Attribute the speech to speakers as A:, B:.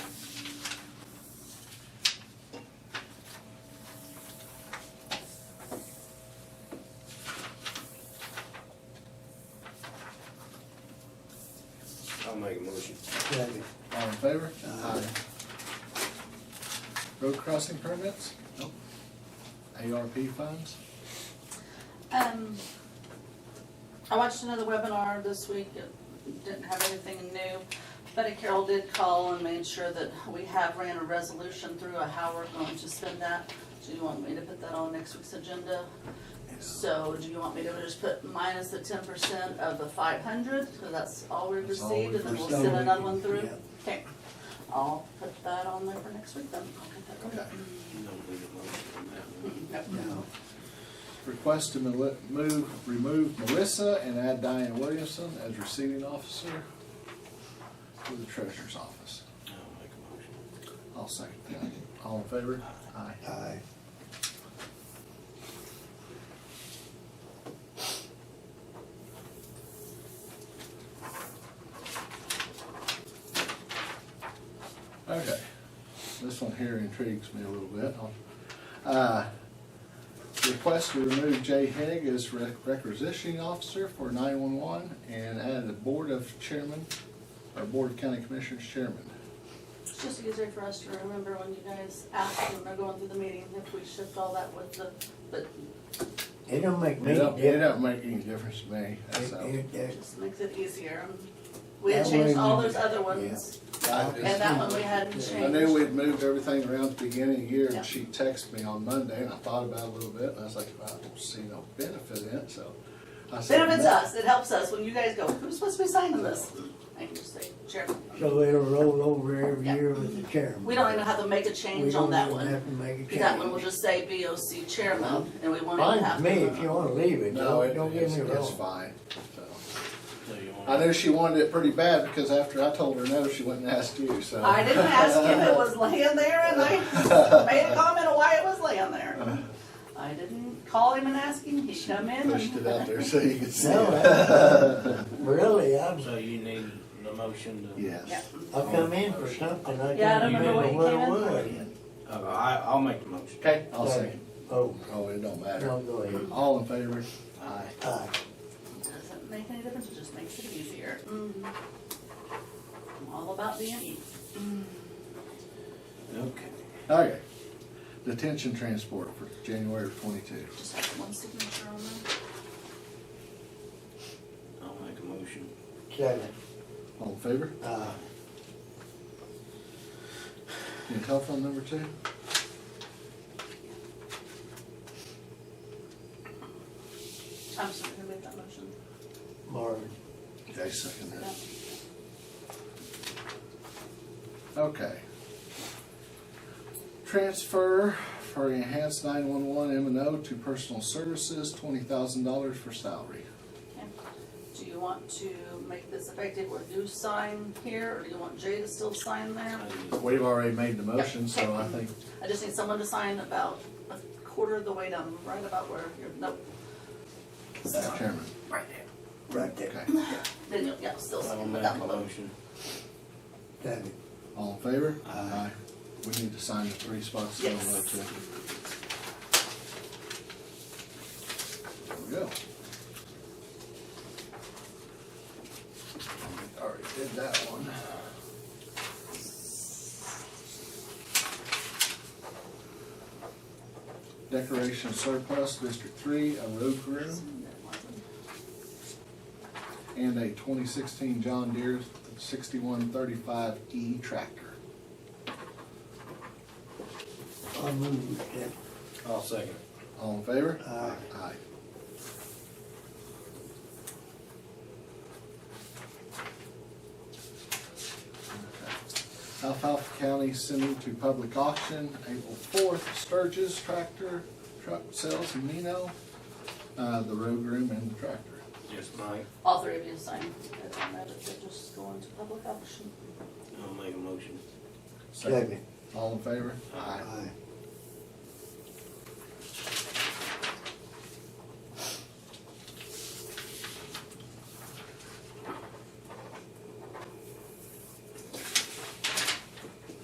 A: make a motion.
B: Second.
C: All in favor?
B: Aye.
C: Road crossing permits? Nope. ARP funds?
D: Um, I watched another webinar this week, it didn't have anything new. Betty Carroll did call and made sure that we have ran a resolution through of how we're going to spend that. Do you want me to put that on next week's agenda? So do you want me to just put minus the ten percent of the five hundred, because that's all we've
C: That's all
D: received,
C: we've
D: and then we'll
B: received.
D: send another one through?
B: Yeah.
D: Okay, I'll put that on there for next week then. I'll get that
C: Okay.
A: You don't need a motion on that one.
D: going. Yep.
B: No.
C: Request to mel- move, remove Melissa and add Diane Williamson as receiving officer to the treasurer's office.
A: I'll make a motion.
C: I'll second that. All in favor? Aye.
B: Aye.
C: Okay, this one here intrigues me a little bit. Uh, Request to remove Jay Haig as re- requisitioning officer for nine-one-one and add the board of chairman, or board of county commissioners chairman.
D: It's just easier for us to remember when you guys ask when we're going through the meeting, if we shift all that with the, but
B: It don't make me
C: It don't, it
B: different.
C: don't make any difference to me,
B: It-
C: so.
B: it-
D: it
B: it-
D: just makes it easier. We had
B: That
D: changed
B: way
D: all
B: we-
D: those other ones,
C: I
D: and
C: just-
D: that one we hadn't
C: I
D: changed.
C: knew we'd moved everything around at the beginning of the year,
D: Yeah.
C: and she texted me on Monday, and I thought about it a little bit, and I was like, "Well, I don't see no benefit in it, so. I said,
D: Benefits
C: "No."
D: us, it helps us, when you guys go, who's supposed to be signing this? I can just say, chairman.
B: So it'll roll over every
D: Yeah.
B: year with the chairman.
D: We don't even have to make a
B: We
D: change
B: don't
D: on that
B: even
D: one.
B: Have to make a change.
D: That one will just say BOC chairman, and we won't even have
B: Fine
D: to.
B: with me if you wanna leave it,
C: No,
B: don't,
C: it,
B: don't get
C: it's,
B: me
C: it's
B: wrong.
C: fine, so.
A: So you want?
C: I knew she wanted it pretty bad because after I told her no, she went and asked you. So
D: I didn't ask you if it was laying there, and I made a comment of why it was laying there. I didn't call him and ask him, he come in
C: pushed it out
D: and.
C: there so you could see.
B: No,
C: it.
B: I- really, I'm,
A: So you need the motion to?
D: Yeah.
C: Yes.
B: I come in for something, I
D: Yeah, I
B: can't
D: don't
B: remember
D: remember
B: what
D: what
B: it
D: you
B: was.
A: Uh, I, I'll make the motion.
C: Okay. I'll say.
B: Oh,
C: Oh, it don't matter.
B: no, go ahead.
C: All in favor?
A: Aye.
B: Aye.
D: Doesn't make any difference, it just makes it easier. Mm. I'm all about being easy.
A: Okay.
C: Okay. Detention transport for January of twenty-two.
D: Just have one signature on there.
A: I'll make a motion.
B: Second,
C: All in favor?
B: aye.
C: Your telephone number too?
D: I'm sorry, who made that motion?
B: Marvin,
C: Okay, second that. Okay. Transfer for enhanced nine-one-one M and O to personal services, twenty thousand dollars for salary.
D: Okay. Do you want to make this effective where you sign here, or do you want Jay to still sign there?
A: I do.
C: We've already made the motion, so I
D: okay.
C: think
D: I just need someone to sign about a quarter of the way down, right about where you're, nope.
C: Madam Chairman.
D: Right there.
B: right there,
C: Okay,
D: Then you'll, yeah, still
A: I'll
D: sign
A: make
D: with
A: a
D: that one.
A: motion.
B: second,
C: all in favor?
A: Aye.
C: We need to sign the three spots down
D: Yes.
C: there too. There we go. Already did that one. Decoration surplus, District Three, a road crew, and a twenty sixteen John Deere sixty-one thirty-five E tractor.
B: I move it,
A: I'll second.
C: All in favor?
B: Aye.
C: Aye. Alfalfa County sending to public auction, April fourth, Sturgis tractor, truck sales, in Nino, uh, the road room and the tractor.
A: Just Mike.
D: All three of you sign. It don't matter if they're just going to public auction.
A: I'll make a motion.
B: second,
C: All in favor?
A: Aye.
B: aye.